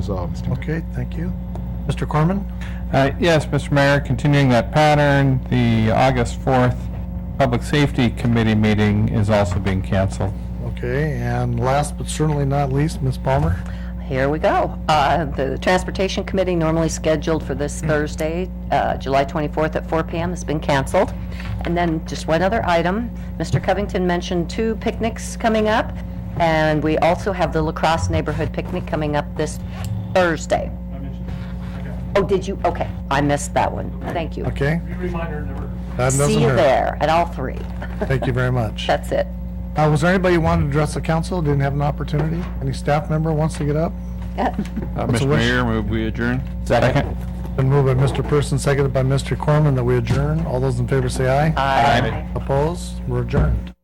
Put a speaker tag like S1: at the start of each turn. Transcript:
S1: resolved, Mr. Mayor.
S2: Okay, thank you. Mr. Corman?
S3: Uh, Yes, Mr. Mayor, continuing that pattern, the August 4th Public Safety Committee meeting is also being canceled.
S2: Okay, and last but certainly not least, Ms. Palmer?
S4: Here we go. Uh, The Transportation Committee, normally scheduled for this
S2: Hmm.
S4: Thursday, uh, July 24th at 4 PM, has been canceled. And then just one other item, Mr. Covington mentioned two picnics coming up, and we also have the La Crosse Neighborhood Picnic coming up this Thursday. Oh, did you? Okay, I missed that one. Thank you.
S2: Okay?
S5: Reminder number.
S2: that doesn't
S4: See you
S2: hurt.
S4: there at all three.
S2: Thank you very much.
S4: That's it.
S2: Uh, Was there anybody who wanted to address the council, didn't have an opportunity? Any staff member wants to get up?
S3: Uh,
S2: What's the
S3: Mr.
S2: wish?
S3: Mayor, move we adjourn? Second.
S2: Been moved by Mr. Person, seconded by Mr. Corman, that we adjourn. All those in favor say aye.
S4: Aye.
S2: Opposed? We're adjourned.